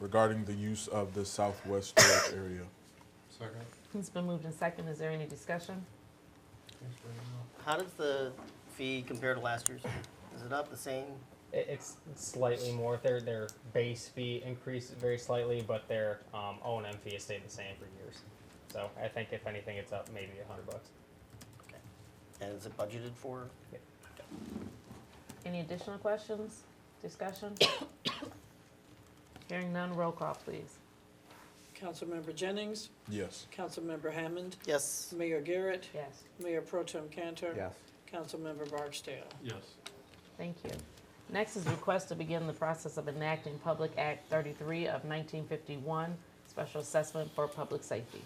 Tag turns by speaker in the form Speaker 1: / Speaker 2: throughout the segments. Speaker 1: regarding the use of the southwest storage area.
Speaker 2: Second.
Speaker 3: It's been moved in second. Is there any discussion?
Speaker 4: How does the fee compare to last year's? Is it up the same?
Speaker 5: It, it's slightly more. Their their base fee increased very slightly, but their um, O and M fee has stayed the same for years. So I think if anything, it's up maybe a hundred bucks.
Speaker 4: And is it budgeted for?
Speaker 3: Any additional questions? Discussion? Hearing none, roll call, please.
Speaker 6: Councilmember Jennings,
Speaker 1: Yes.
Speaker 6: Councilmember Hammond,
Speaker 4: Yes.
Speaker 6: Mayor Garrett,
Speaker 3: Yes.
Speaker 6: Mayor Pro Tem Cantor.
Speaker 7: Yes.
Speaker 6: Councilmember Barksdale.
Speaker 2: Yes.
Speaker 3: Thank you. Next is request to begin the process of enacting Public Act 33 of 1951, Special Assessment for Public Safety.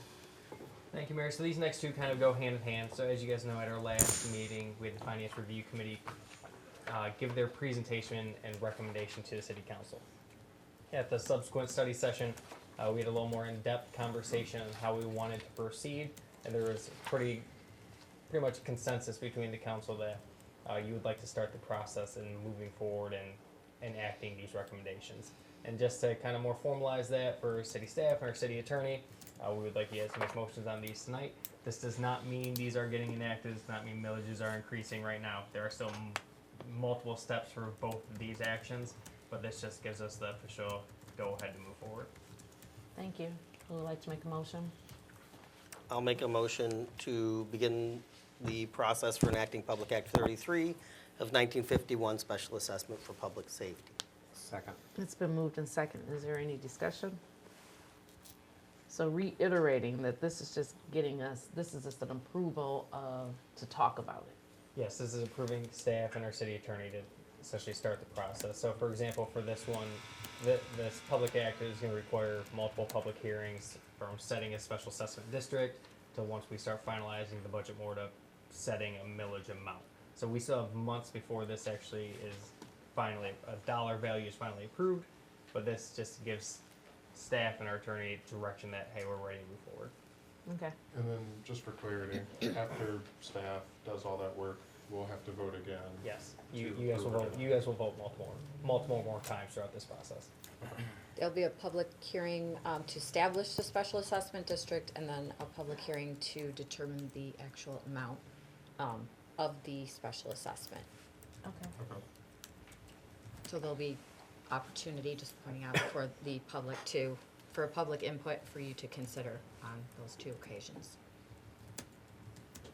Speaker 5: Thank you, Mayor. So these next two kind of go hand in hand. So as you guys know, at our last meeting, we had the Finance Review Committee uh, give their presentation and recommendation to the City Council. At the subsequent study session, uh, we had a little more in-depth conversation on how we wanted to proceed, and there was pretty, pretty much consensus between the council that uh, you would like to start the process and moving forward and enacting these recommendations. And just to kind of more formalize that for city staff and our city attorney, uh, we would like you guys to make motions on these tonight. This does not mean these are getting enacted. Does not mean millages are increasing right now. There are still m- multiple steps for both of these actions, but this just gives us the official go ahead to move forward.
Speaker 3: Thank you. Who would like to make a motion?
Speaker 4: I'll make a motion to begin the process for enacting Public Act 33 of 1951, Special Assessment for Public Safety.
Speaker 7: Second.
Speaker 3: It's been moved in second. Is there any discussion? So reiterating that this is just getting us, this is just an approval of, to talk about it.
Speaker 5: Yes, this is approving staff and our city attorney to essentially start the process. So, for example, for this one, th- this public act is going to require multiple public hearings from setting a special assessment district to once we start finalizing the budget more to setting a millage amount. So we still have months before this actually is finally, a dollar value is finally approved, but this just gives staff and our attorney direction that, hey, we're ready to move forward.
Speaker 3: Okay.
Speaker 2: And then, just for clarity, after staff does all that work, we'll have to vote again.
Speaker 5: Yes, you,
Speaker 2: To
Speaker 5: you guys
Speaker 2: approve
Speaker 5: will
Speaker 2: or
Speaker 5: vote,
Speaker 2: not.
Speaker 5: you guys will vote multiple, multiple more times throughout this process.
Speaker 8: There'll be a public hearing um, to establish the special assessment district and then a public hearing to determine the actual amount um, of the special assessment.
Speaker 3: Okay.
Speaker 2: Okay.
Speaker 8: So there'll be opportunity, just pointing out, for the public to, for public input for you to consider on those two occasions.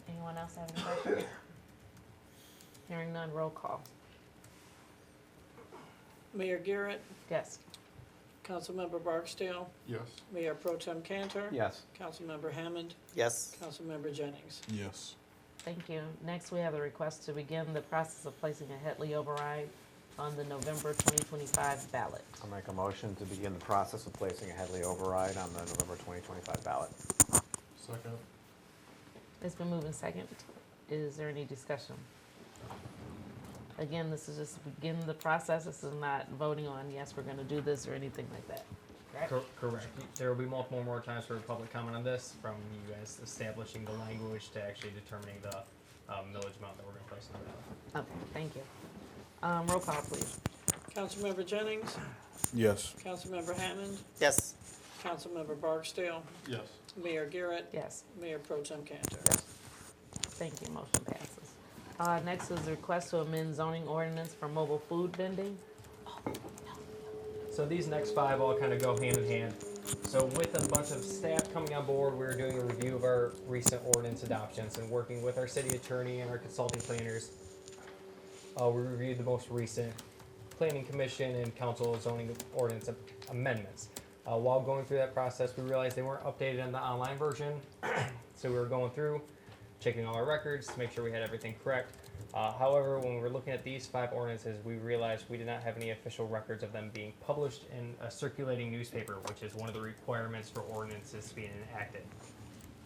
Speaker 3: Anyone else have any questions? Hearing none, roll call.
Speaker 6: Mayor Garrett,
Speaker 3: Yes.
Speaker 6: Councilmember Barksdale,
Speaker 2: Yes.
Speaker 6: Mayor Pro Tem Cantor.
Speaker 7: Yes.
Speaker 6: Councilmember Hammond,
Speaker 4: Yes?
Speaker 6: Councilmember Jennings.
Speaker 1: Yes.
Speaker 3: Thank you. Next, we have a request to begin the process of placing a Headley override on the November 2025 ballot.
Speaker 7: I'll make a motion to begin the process of placing a Headley override on the November 2025 ballot.
Speaker 2: Second.
Speaker 3: It's been moved and second. Is there any discussion? Again, this is just begin the process. This is not voting on, yes, we're going to do this or anything like that.
Speaker 5: Cor- Correct. There will be multiple more times for public comment on this, from you guys establishing the language to actually determining the um, millage amount that we're going to place on the ballot.
Speaker 3: Okay, thank you. Um, roll call, please.
Speaker 6: Councilmember Jennings,
Speaker 1: Yes.
Speaker 6: Councilmember Hammond,
Speaker 4: Yes.
Speaker 6: Councilmember Barksdale,
Speaker 2: Yes.
Speaker 6: Mayor Garrett,
Speaker 3: Yes.
Speaker 6: Mayor Pro Tem Cantor.
Speaker 3: Thank you, motion passes. Uh, next is a request to amend zoning ordinance for mobile food vending.
Speaker 5: So these next five all kind of go hand in hand. So with a bunch of staff coming on board, we we're doing a review of our recent ordinance adoptions and working with our city attorney and our consulting planners. Uh, we reviewed the most recent planning commission and council zoning ordinance amendments. Uh, while going through that process, we realized they weren't updated in the online version. so we were going through, checking all our records to make sure we had everything correct. Uh, however, when we were looking at these five ordinances, we realized we did not have any official records of them being published in a circulating newspaper, which is one of the requirements for ordinances being enacted.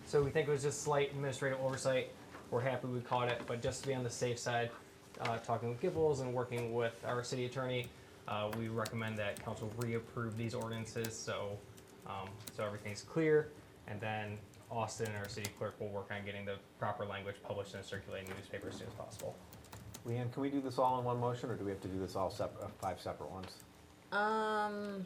Speaker 5: So we think it was just slight administrative oversight. We're happy we caught it, but just to be on the safe side, uh, talking with Gibbles and working with our city attorney, uh, we recommend that council reapprove these ordinances so um, so everything's clear. And then Austin and our city clerk will work on getting the proper language published in a circulating newspaper as soon as possible.
Speaker 7: Leanne, can we do this all in one motion, or do we have to do this all sep- uh, five separate ones?
Speaker 8: Um,